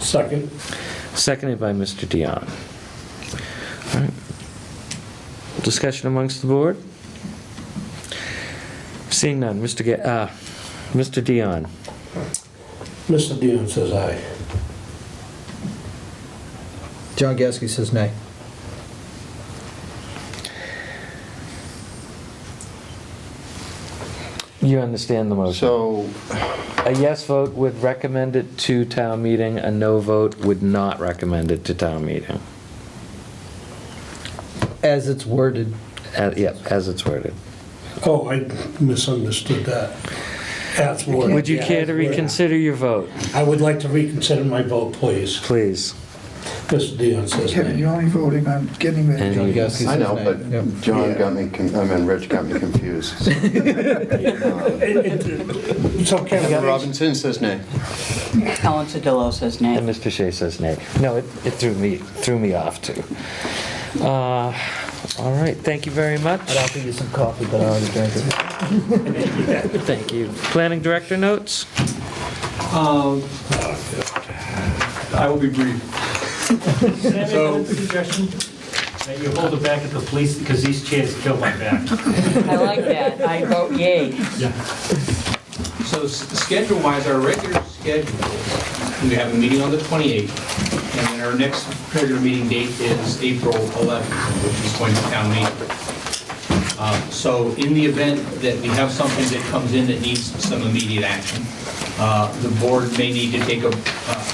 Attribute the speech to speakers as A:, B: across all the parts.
A: Second.
B: Seconded by Mr. Dion. All right. Discussion amongst the board? Seeing none, Mr. Ga- uh, Mr. Dion.
A: Mr. Dion says aye.
C: John Gasky says nay.
B: You understand the motion.
D: So,
B: A yes vote would recommend it to town meeting, a no vote would not recommend it to town meeting.
C: As it's worded,
B: Uh, Yep, as it's worded.
A: Oh, I misunderstood that. That's worded.
B: Would you
A: yeah,
B: care to
A: that's worded.
B: reconsider your vote,
A: I would like to reconsider my vote, please.
B: please?
A: Mr. Dion says
E: Kevin,
A: aye.
E: you're only voting on getting the,
B: And-
C: John Gasky says nay.
D: I know, but
C: Yep.
D: John got me, con- I mean, Rich got me confused.
A: It- it- So Kevin,
D: Robinson says nay.
F: Ellen Sedillo says nay.
B: And Mr. Shea says nay. No, it, it threw me, threw me off too. Uh, All right, thank you very much.
C: I'd offer you some coffee, but I already drank it.
B: Thank you. Planning director notes?
G: I will be brief. Can I make one suggestion? That you hold it back at the police, because these chairs kill my back.
F: I like that. I vote yay.
H: So s- schedule-wise, our regular schedule, we have a meeting on the 28th, and then our next regular meeting date is April 11th, which is going to town meeting. Uh, So in the event that we have something that comes in that needs some immediate action, uh, the board may need to take a, uh,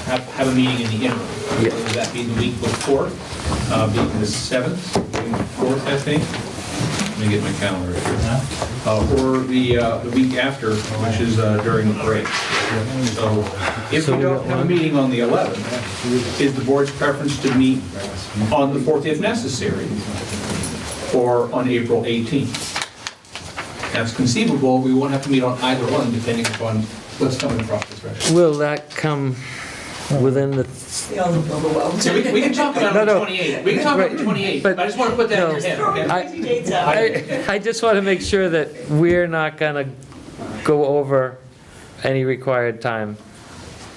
H: have have a meeting in the interim. Whether that be the week before, uh, being the 7th, being the 4th, I think. Let me get my calendar here. Uh, Or the uh, the week after, which is uh, during the break. So if we don't have a meeting on the 11th, is the board's preference to meet on the 4th if necessary? or on April 18th. That's conceivable, we won't have to meet on either one, depending upon what's coming across this threshold.
B: Will that come within the,
H: So we we can talk about it
B: No,
H: on the
B: no.
H: 28th, we can talk about it
B: Right,
H: on the 28th,
B: but-
H: but I just want to put that in your
B: no.
H: head, okay?
B: I, I I just want to make sure that we're not going to go over any required time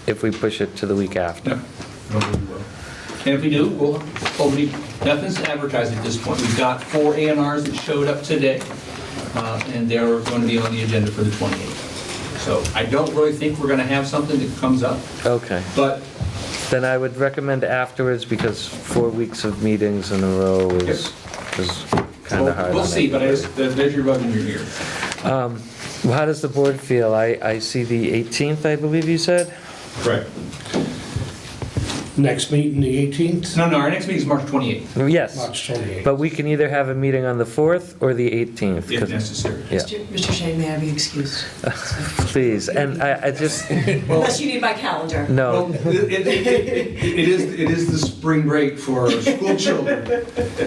B: if we push it to the week after.
H: No. And if we do, we'll, hopefully, nothing's advertised at this point. We've got four A and Rs that showed up today, uh, and they're going to be on the agenda for the 28th. So I don't really think we're going to have something that comes up,
B: Okay,
H: but
B: then I would recommend afterwards because four weeks of meetings in a row is, is kind
H: we'll
B: of hard. on
H: we'll see, but I
B: everybody.
H: just- there's your rub in your ear.
B: Well, How does the board feel? I, I see the 18th, I believe you said?
H: Correct.
A: next meeting, the 18th,
H: No, no, our next meeting is March 28th,
B: Yes,
A: March 28th.
B: but we can either have a meeting on the 4th or the 18th.
H: if
B: 'cause-
H: necessary.
B: Yeah,
I: Mr. Shane, may I be excused?
B: please, and I, I just,
I: Unless you need my calendar.
B: no,
H: Well, it it- it- it is, it is the spring break for school children,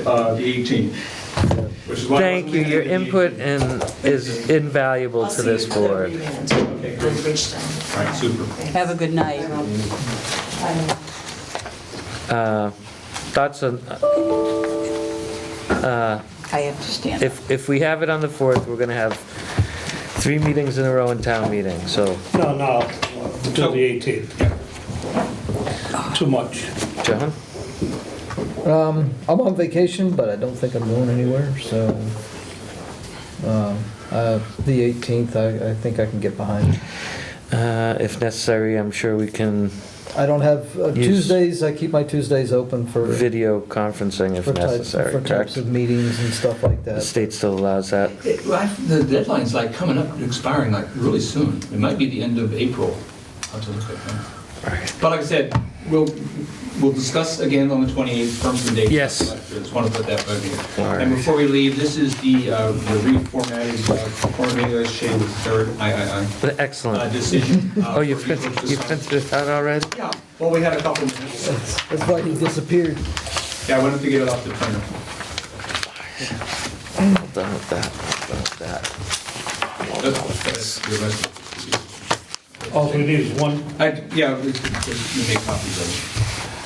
H: uh, the 18th. which is why I wasn't
B: thank you,
H: looking
B: your
H: at the
B: input
H: 18th.
B: and is invaluable to this
I: I'll see
B: board.
I: you at
H: Okay,
I: the
H: great.
I: remand on Bridgestone.
H: All right, super.
F: Have a good night.
B: Uh, Thoughts on,
F: I have to stand. up.
B: if, if we have it on the 4th, we're gonna have three meetings in a row in town meeting, so,
A: No, no, until the 18th. Too much.
B: John?
C: Um, I'm on vacation, but I don't think I'm going anywhere, so, um, uh, the 18th, I, I think I can get behind.
B: Uh, If necessary, I'm sure we can
C: I don't have, uh,
B: Yes.
C: Tuesdays, I keep my Tuesdays open for, for
B: video conferencing if
C: types,
B: necessary,
C: for types
B: correct?
C: of meetings and stuff like
B: The
C: that.
B: state still allows that?
H: It- well, I- The deadline's like coming up, expiring like really soon. It might be the end of April. I'll have to look at that.
B: Right.
H: But like I said, we'll, we'll discuss again on the 28th, firms and dates.
B: Yes.
H: Just want to put that back in.
B: All
H: And
B: right.
H: before we leave, this is the uh, the reformatted, uh, formatted as shaded third III uh,
B: Excellent.
H: decision. uh,
B: Oh, you
H: for people
B: printed,
H: to
B: you
H: sign.
B: printed it out already?
H: Yeah, well, we had a couple minutes.
C: It's like he disappeared.
H: Yeah, I wanted to get it off the printer.
B: Well Done with that, done with that.
H: That's- that's the rest of it.
A: All we need is one,
H: I, yeah, we- we- we make copies of